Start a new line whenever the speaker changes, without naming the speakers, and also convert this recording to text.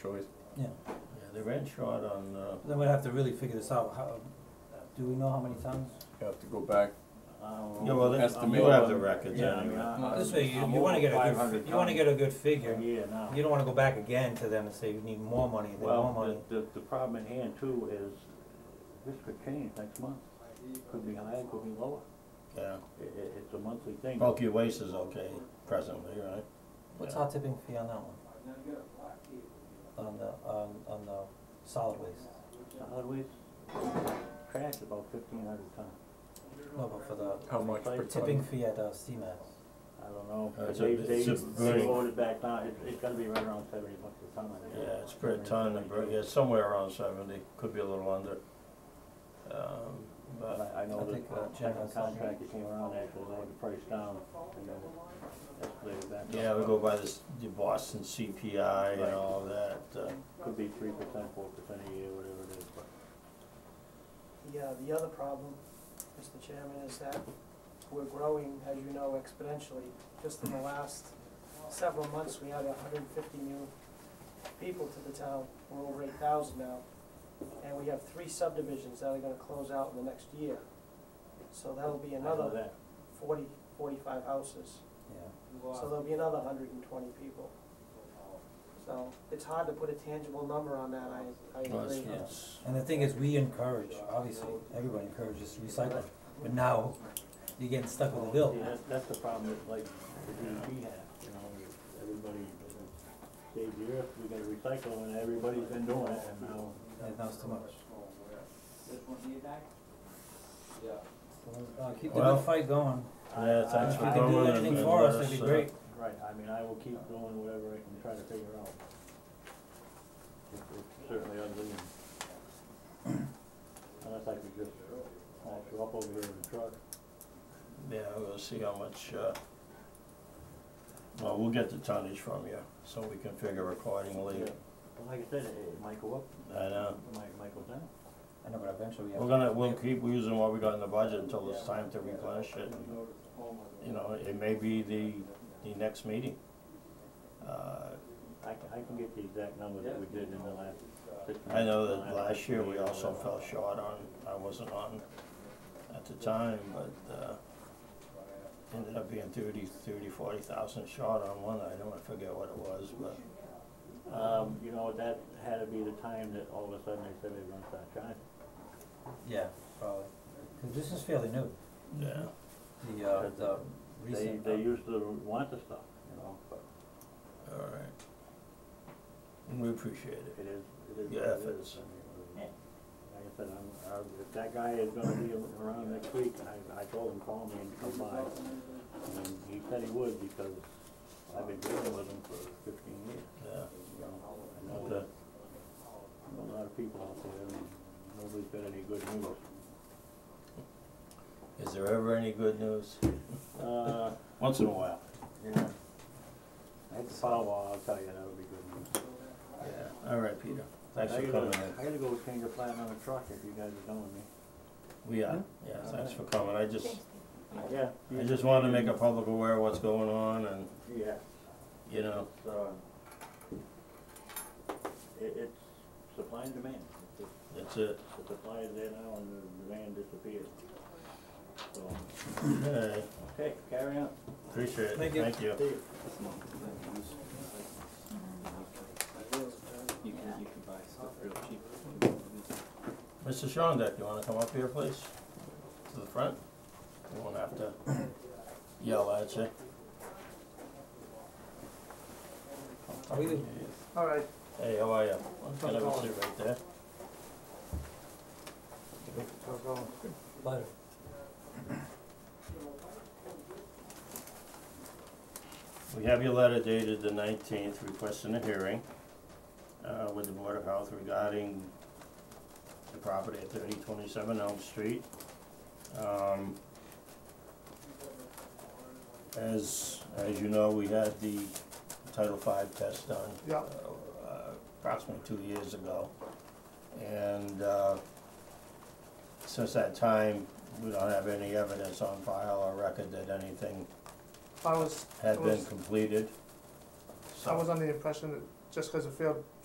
choice.
Yeah,
Yeah, they ran short on, uh,
then we'd have to really figure this out, how, do we know how many tons?
you have to go back,
Yeah, well, that's,
Estimate.
you have the records
Yeah, I
anyway.
mean,
Uh,
This way, you,
I'm
you wanna
over
get a good,
500
fi- you wanna
tons
get a good
a
figure,
year now.
you don't wanna go back again to them and say, we need more money, they need more money.
Well, the, the, the problem at hand too is, this could change next month, could be higher, could be lower,
yeah.
i- i- it's a monthly thing.
Bulky waste is okay presently, right?
What's
yeah.
our tipping fee on that one? On the, on, on the solid waste,
Solid waste, trash is about fifteen hundred ton,
no, but for the
How much per ton?
Like
tipping fee at, uh, CMAX,
I don't know,
Uh,
but
it's
they,
a-
they,
it's a
they
very-
voted back down, it's, it's gonna be right around seventy bucks a ton, I think.
Yeah, it's per ton, and per- yeah, somewhere around seventy, could be a little under. Um,
But
but,
I, I know
I think, uh,
that the
Jen
second
has something.
contract that came around, actually lowered the price down, and then escalated that.
yeah, we go by this, the Boston CPI and
Right.
all that, uh,
Could be three percent, four percent a year, whatever it is, but.
Yeah, the other problem, Mr. Chairman, is that we're growing, as you know, exponentially. Just in the last several months, we had hundred and fifty new people to the town, we're over eight thousand now. And we have three subdivisions that are gonna close out in the next year. So that'll be
I know
another
that.
40, 45 houses.
yeah.
So there'll be another hundred and twenty people. So it's hard to put a tangible number on that, I, I
well, it's,
agree.
Yeah.
it's-
And the thing is, we encourage, obviously, everybody encourages recycling, but now you're getting stuck with a Oh, bill.
See, that's, that's the problem that like the DEP had, you know, everybody, uh, saved the earth, we gotta recycle, and everybody's been doing it, and now,
And that's too much. Uh, keep the
Well-
good fight going.
Yeah,
I-
thanks
If
for
you
coming.
I-
can do
Well,
anything
it's
for us,
been
that'd be
us, uh,
great.
Right, I mean, I will keep doing whatever I can try to figure out. It's- it's Certainly ugly, and unless I could just, i show up over here with a truck.
yeah, we'll see how much, uh, well, we'll get the tonnage from you, so we can figure accordingly.
Yeah. But like I said, it, it might go up,
I know.
it might, might go down.
I know, but eventually we
We're
have,
gonna, we'll keep using what we got in the budget until it's time to replenish it. and, You know, it may be the, the next meeting. Uh,
I can, I can get the exact number that we did in the last six months.
I know that last year we also fell short on, I wasn't on at the time, but, uh, ended up being thirty, thirty, forty thousand short on one item, I forget what it was, but,
Um, you know, that had to be the time that all of a sudden they said they were gonna start charging.
yeah, probably. Cause this is fairly new,
yeah.
the, uh, the
They,
recent.
they
uh,
used to want the stuff, you know, but
All right. We appreciate it.
it is, it is.
Yeah,
what
if
it
it's-
is. I mean, Like I said, I'm, I, if that guy is gonna be around next week, I, I told him, call me and come by. And he said he would because I've been dealing with him for fifteen years,
Yeah,
you know, I know
okay,
a lot of people out there and nobody's got any good news.
is there ever any good news?
Uh,
Once in a while.
yeah. I had to follow, I'll tell you, that would be good news.
Yeah, all right, Peter, thanks
I
for
gotta-
coming in.
I gotta go change a plan on a truck if you guys are done with me.
We are, yeah, thanks for coming, I just,
Yeah.
I just wanted to make a public aware of what's going on and,
Yeah,
you know,
it's, uh, it, it's supply and demand. If The
that's it.
the supply is there now and the demand disappears. So,
Okay,
okay, carry on.
appreciate it,
Thank
thank
you.
you.
See you.
You can, you can buy stuff real cheap.
Mr. Shondak, you wanna come up here, please? To the front? We won't have to yell at you.
How are you?
All right,
Hey, how are you?
How's it
Can I have a
going?
seat right there?
so go.
Butter.
We have your letter dated the nineteenth requesting a hearing, uh, with the Board of Health regarding the property at thirty twenty-seven Elm Street. Um, as, as you know, we had the Title V test done.
Yeah.
uh, Approximately two years ago. And, uh, since that time, we don't have any evidence on file or record that anything
I was, I
had been
was,
completed.
I
So-
was under the impression that just because it failed